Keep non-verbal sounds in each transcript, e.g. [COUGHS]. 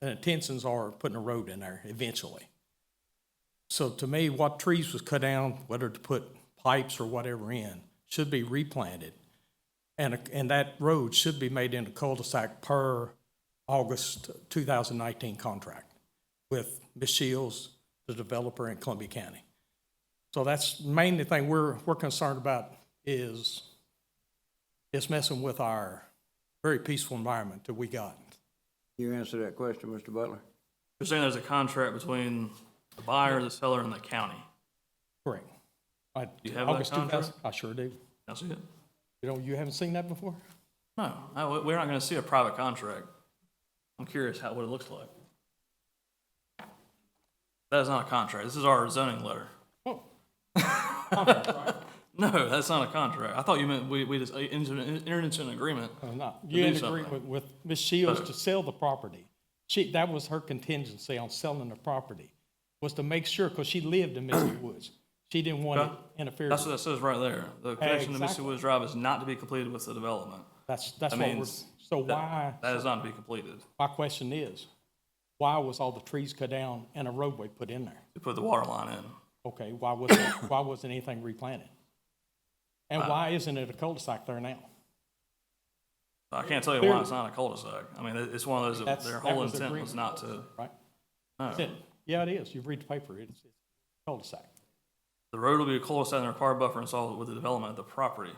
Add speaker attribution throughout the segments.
Speaker 1: and intentions are putting a road in there eventually. So to me, what trees was cut down, whether to put pipes or whatever in, should be replanted. And, and that road should be made into cul-de-sac per August 2019 contract with Ms. Shields, the developer in Columbia County. So that's mainly the thing we're, we're concerned about is, is messing with our very peaceful environment that we got.
Speaker 2: You answer that question, Mr. Butler?
Speaker 3: You're saying there's a contract between the buyer, the seller, and the county.
Speaker 1: Correct. I-
Speaker 3: You have that
Speaker 1: August 2000
Speaker 3: contract?
Speaker 1: I sure do.
Speaker 3: That's it?
Speaker 1: You know, you haven't seen that before?
Speaker 3: No, I- we- we're not gonna see a private contract. I'm curious how, what it looks like. That is not a contract. This is our zoning letter. [LAUGHS]
Speaker 1: Oh.
Speaker 3: No, that's not a contract. I thought you meant we, we just entered entered into an agreement.
Speaker 1: I'm not. You're in
Speaker 3: do something.
Speaker 1: agreement with Ms. Shields to sell the property. She, that was her contingency on selling the property, was to make sure, because she lived in
Speaker 3: [COUGHS]
Speaker 1: Misty Woods. She didn't want
Speaker 3: Okay.
Speaker 1: it interfered
Speaker 3: That's
Speaker 1: with.
Speaker 3: what that says right there. The connection to Mississippi
Speaker 1: Exactly.
Speaker 3: Woods Drive is not to be completed with the development.
Speaker 1: That's, that's
Speaker 3: That
Speaker 1: what we're,
Speaker 3: means
Speaker 1: so
Speaker 3: that-
Speaker 1: why,
Speaker 3: That is not to be completed.
Speaker 1: my question is, why was all the trees cut down and a roadway put in there?
Speaker 3: To put the water line in.
Speaker 1: Okay, why wasn't, why wasn't anything replanted? And why isn't it a cul-de-sac there now?
Speaker 3: I can't tell you why it's not a cul-de-sac. I mean, it- it's one of those, that
Speaker 1: That's-
Speaker 3: their
Speaker 1: that
Speaker 3: whole
Speaker 1: was
Speaker 3: intent
Speaker 1: agreement.
Speaker 3: was not to, Oh.
Speaker 1: Right?
Speaker 3: no.
Speaker 1: That's it. Yeah, it is. You read the paper, it's it's cul-de-sac.
Speaker 3: The road will be a cul-de-sac and the required buffer installed with the development of the property,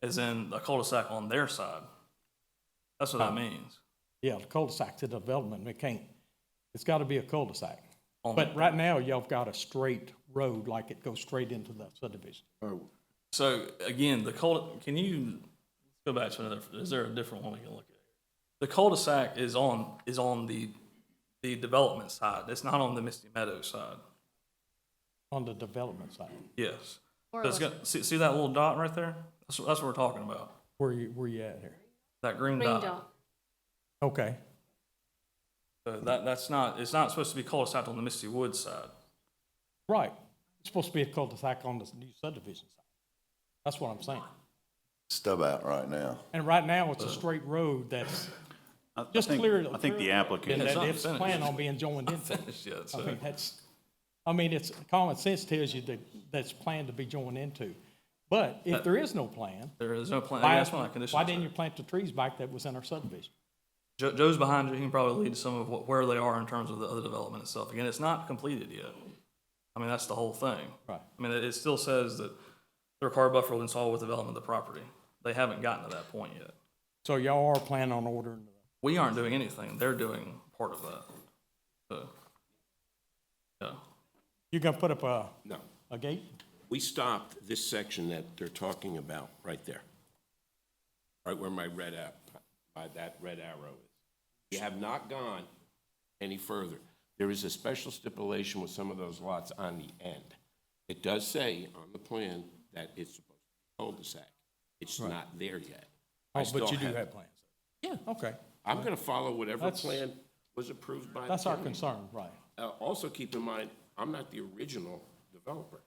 Speaker 3: as in a cul-de-sac on their side. That's what that means.
Speaker 1: Yeah, the cul-de-sac to development, it can't, it's gotta be a cul-de-sac.
Speaker 3: On-
Speaker 1: But right now, y'all have got a straight road, like it goes straight into the subdivision.
Speaker 2: Or
Speaker 3: So again, the cul, can you go back to another, is there a different one we can look at? The cul-de-sac is on, is on the, the development side. It's not on the Misty Meadows side.
Speaker 1: on the development side,
Speaker 3: Yes. So it's got, see, see that little dot right there? That's, what- that's what we're talking about.
Speaker 1: where you, where you at here?
Speaker 3: That green
Speaker 4: Green
Speaker 3: dot.
Speaker 4: dot.
Speaker 1: Okay,
Speaker 3: So that, that's not, it's not supposed to be cul-de-sac on the Misty Woods side. [LAUGHS]
Speaker 1: right. It's supposed to be a cul-de-sac on the new subdivision side. That's what I'm saying.
Speaker 5: stub out right now.
Speaker 1: And right now,
Speaker 3: Uh.
Speaker 1: it's a straight road that's
Speaker 6: I- I
Speaker 1: just
Speaker 6: think-
Speaker 1: clear.
Speaker 6: I think the
Speaker 1: And
Speaker 6: applicant,
Speaker 3: It's
Speaker 1: that
Speaker 3: not
Speaker 1: it's
Speaker 3: finished.
Speaker 1: planned on being joined into. it.
Speaker 3: Finished yet,
Speaker 1: I
Speaker 3: so.
Speaker 1: mean, that's, I mean, it's, common sense tells you that that's planned to be joined into. But if there is no plan,
Speaker 3: There is no plan.
Speaker 1: why,
Speaker 3: that's one of the conditions.
Speaker 1: why didn't you plant the trees back that was in our subdivision?
Speaker 3: Joe, Joe's behind you. He can probably lead to some of what, where they are in terms of the other development itself. Again, it's not completed yet. I mean, that's the whole thing.
Speaker 1: Right.
Speaker 3: I mean, it, it still says that their car buffer will install with development of the property. They haven't gotten to that point yet.
Speaker 1: So y'all are planning on ordering,
Speaker 3: We aren't doing anything. They're doing part of that. So, yeah.
Speaker 1: you gonna put up a,
Speaker 7: No,
Speaker 1: a gate?
Speaker 7: we stopped this section that they're talking about right there. Right where my red app, by that red arrow is. We have not gone any further. There is a special stipulation with some of those lots on the end. It does say on the plan that it's supposed to be cul-de-sac. It's not there yet. I
Speaker 1: Oh,
Speaker 7: still
Speaker 1: but you do have plans. Yeah. Okay,
Speaker 7: I'm gonna follow whatever
Speaker 1: That's-
Speaker 7: plan was approved by the
Speaker 1: that's our
Speaker 7: county.
Speaker 1: concern, right.
Speaker 7: Uh, Also, keep in mind, I'm not the original developer.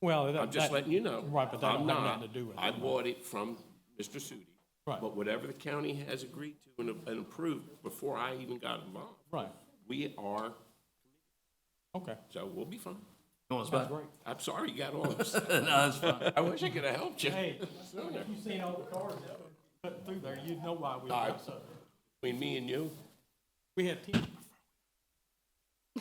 Speaker 1: Well, that.
Speaker 7: I'm just
Speaker 1: that-
Speaker 7: letting you know.
Speaker 1: Right, but that
Speaker 7: I'm
Speaker 1: don't have
Speaker 7: not.
Speaker 1: nothing to do with
Speaker 7: I
Speaker 1: it.
Speaker 7: bought it from Mr. Sudi.
Speaker 1: Right.
Speaker 7: But whatever the county has agreed to and and approved before I even got involved,
Speaker 1: Right,
Speaker 7: we are,
Speaker 1: okay,
Speaker 7: so we'll be fine.
Speaker 3: You want us
Speaker 1: that's
Speaker 3: back?
Speaker 1: great.
Speaker 7: I'm sorry you got
Speaker 1: [LAUGHS]
Speaker 7: all
Speaker 3: [LAUGHS]
Speaker 7: upset.
Speaker 3: no, it's fine.
Speaker 7: I wish I could have helped you. [LAUGHS]
Speaker 1: Hey,
Speaker 7: sooner.
Speaker 1: you seen all the cars that were put through there, you'd know why we
Speaker 7: I-
Speaker 1: got so.
Speaker 7: Between me and you,
Speaker 1: We had ten,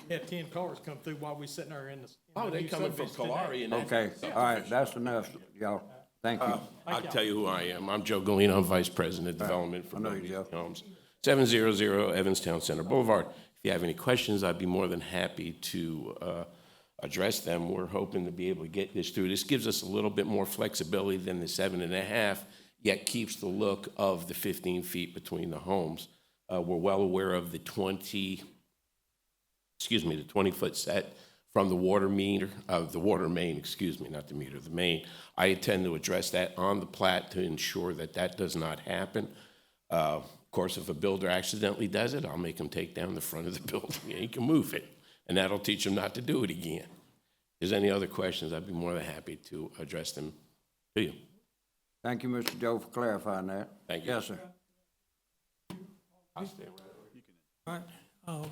Speaker 1: we had ten cars come through while we sitting there in the. in the
Speaker 7: oh, they
Speaker 1: new
Speaker 7: coming from
Speaker 1: subdivision today.
Speaker 7: Kalari and that.
Speaker 2: Okay, all right, that's enough, y'all. Thank you.
Speaker 7: I'll tell you who I am. I'm Joe Galena, I'm Vice President of Development for
Speaker 2: I know you,
Speaker 7: Moody
Speaker 2: Joe.
Speaker 7: Homes. 700 Evanstown Center Boulevard. If you have any questions, I'd be more than happy to uh, address them. We're hoping to be able to get this through. This gives us a little bit more flexibility than the seven and a half, yet keeps the look of the 15 feet between the homes. Uh, We're well aware of the 20, excuse me, the 20-foot set from the water meter, of the water main, excuse me, not the meter, the main. I intend to address that on the plat to ensure that that does not happen. Uh, Of course, if a builder accidentally does it, I'll make him take down the front of the [LAUGHS] building and he can move it, and that'll teach him not to do it again. If there's any other questions, I'd be more than happy to address them to you.
Speaker 2: Thank you, Mr. Joe, for clarifying that.
Speaker 7: Thank you.
Speaker 2: Yes, sir.